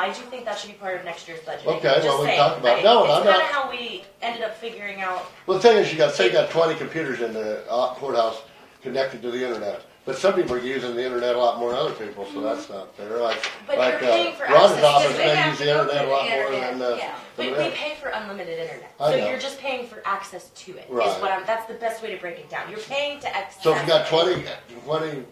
I do think that should be part of next year's budget. Okay, well, Just we saying, talked about- I- no, and I'm It's kinda not- how we ended up figuring out, Well, the thing is, you got, say you got twenty computers in the uh, courthouse connected to the internet, but some people are using the internet a lot more than other people, so that's not fair, like, But like, you're paying uh, for access, Rhonda's office, because they they have use to the go internet a through lot the more than, internet, yeah. uh. we, than we that. pay for unlimited internet. I So know. you're just paying for access to it, is Right. what I'm, that's the best way to break it down. You're paying to access. So if you got it. 20 20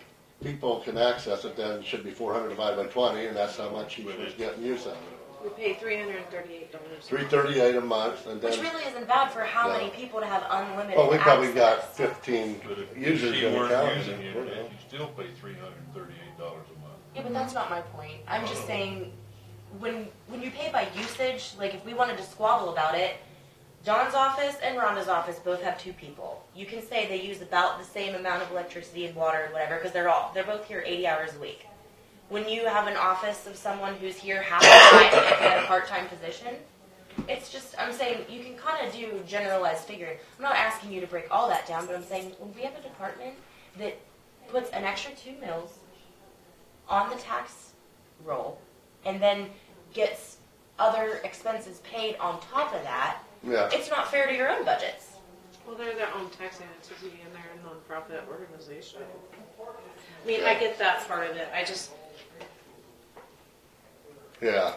people can access it, then it should be four hundred divided by twenty, and that's how much you should get in use out of it. We pay three hundred and thirty-eight dollars. Three thirty-eight a month, and Which then, really isn't bad for how No. many people to have unlimited well, Oh, we probably got access. fifteen But if you users in see the weren't using county. it, we're good. you still pay three hundred and thirty-eight dollars a month. Yeah, but that's not my point. I'm just saying, when, when you pay by usage, like if we wanted to squabble about it, Don's office and Rhonda's office both have two people. You can say they use about the same amount of electricity and water and whatever, because they're all, they're both here eighty hours a week. When you have an office of someone who's here half the time and in a part-time position, it's just, I'm saying, you can kinda do generalized figuring. I'm not asking you to break all that down, but I'm saying, when we have a department that puts an extra two mills on the tax roll and then gets other expenses paid on top of that, Yeah, it's not fair to your own budgets. Well, they're their own taxing entity and they're a nonprofit organization. I mean, I get that part of it, I just, yeah.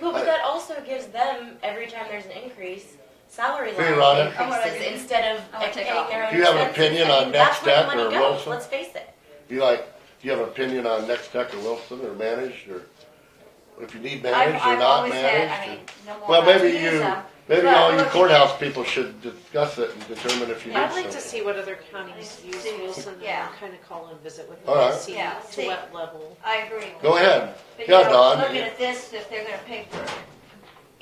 Well, I- but that also gives them, every time there's an increase, salary line Hey, Rhonda. I wanna increases take- instead of I wanna paying take their own off. Do you have an expenses. opinion I on mean, that's Next where the Act money or goes, Wilson? Let's face it. You like, do you have an opinion on Next Tech or Wilson or managed or if you need I've, managed or I've not always said, I mean, managed? no or- more. Well, about maybe to use you, them. maybe but all you look at- courthouse people should discuss it and determine if you I'd like need some. to see what other counties use Wilson Yeah. and kind of call and visit with All them, right. see Yeah, to see. what level. I agree. Go ahead. But you Yeah, know, Don. Looking at this, if they're gonna pay for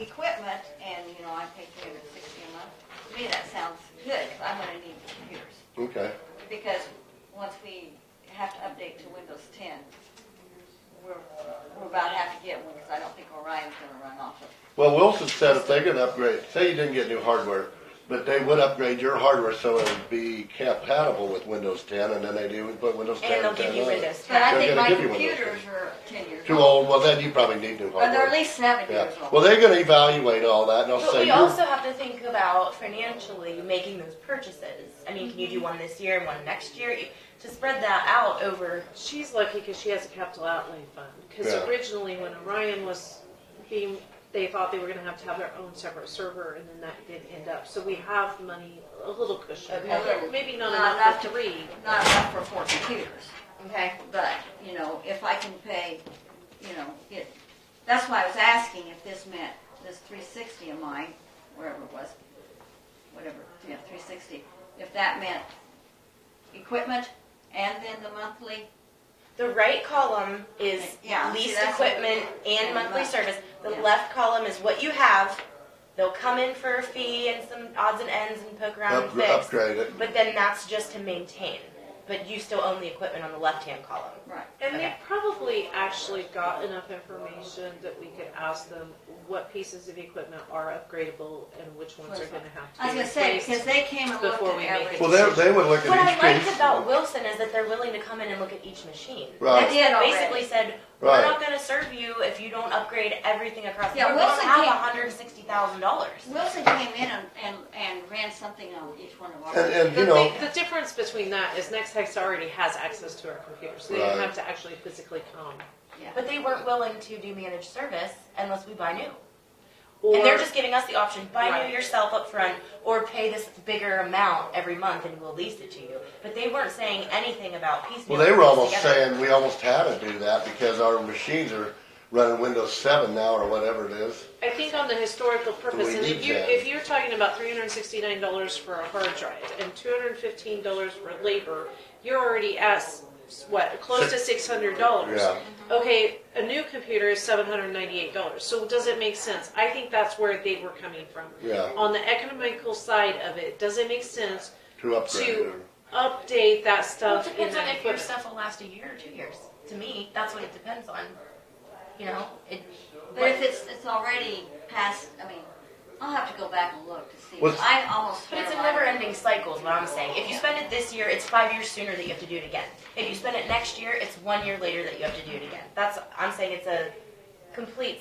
equipment, and, you know, I pay three hundred and sixty a month, to me, that sounds good, 'cause I'm gonna need computers. Okay. Because once we have to update to Windows ten, we're, we're about to have to get one, because I don't think Orion's gonna run off of. Well, Wilson said if they're gonna upgrade, say you didn't get new hardware, but they would upgrade your hardware so it would be compatible with Windows ten, and then they do, we put Windows ten And they'll and give 10 you on it. Windows But 10. I They're think gonna my give you one of those computers are ten years Too old, old, well, then you probably need new or hardware. they're at least seven Yeah, years old. well, they're gonna evaluate all that, and they'll But say, we you're, also have to think about financially making those purchases. I mean, can you Mm-hmm. do one this year and one next year? To spread that out over She's lucky because she has a capital outlay fund, because Yeah. originally when Orion was being, they thought they were gonna have to have their own separate server, and then that did end up, so we have money, a little cushion, Okay. Uh, maybe not Not enough enough for to- three. Not enough for four computers. Okay. But, you know, if I can pay, you know, it, that's why I was asking if this meant this three sixty of mine, wherever it was, whatever, yeah, three sixty, if that meant equipment and then the monthly, The right column is Yeah, see, leased that's- equipment and and monthly month- service. The yeah. left column is what you have. They'll come in for a fee and some odds and ends and poke around upgra- and fix. upgrade it. But then that's just to maintain. But you still own the equipment on the left-hand column. right. And they Okay. probably actually got enough information that we could ask them what pieces of equipment are upgradable and which ones are gonna have to I was be gonna say, replaced. because they came and looked before we at make every. it. Well, they, they would look What I at each liked piece. about Wilson is that they're willing to come in and look at each machine. They Right, did already. Basically said, we're Right. not gonna serve you if you don't upgrade everything across the Yeah, board. We don't Wilson have came- hundred and sixty thousand dollars. Wilson came in and, and, and ran something on each one of ours. and, and, The you know, thing- The difference between that is NextHex already has access to our computers, so they Right. don't have to actually physically come. But they weren't willing to do managed service unless we buy new. Or And they're just giving us the option, buy Right. new yourself up front or pay this bigger amount every month and we'll lease it to you. But they weren't saying anything about piecemeal. well, they were things almost together. saying, we almost had to do that because our machines are running Windows seven now or whatever it is. I think on the historical purpose, We and if need you, that. if you're talking about three hundred and sixty-nine dollars for a hard drive and two hundred and fifteen dollars for labor, you're already at, s- what, close to six hundred dollars? Yeah. Mm-hmm. Okay, a new computer is seven hundred and ninety-eight dollars, so does it make sense? I think that's where they were coming from. Yeah. On the economical side of it, does it make sense To upgrade to it. update that Well, it stuff in depends on that if your equipment? stuff will last a year or two years. To me, that's what it depends on. You know, it, But if it's, it's already past, I mean, I'll have to go back and look to see. What's- I almost. But it's a had mine. never-ending cycle, is what I'm saying. If you spend it this year, it's five years sooner that you have to do it again. If you spend it next year, it's one year later that you have to do it again. That's I'm saying it's a complete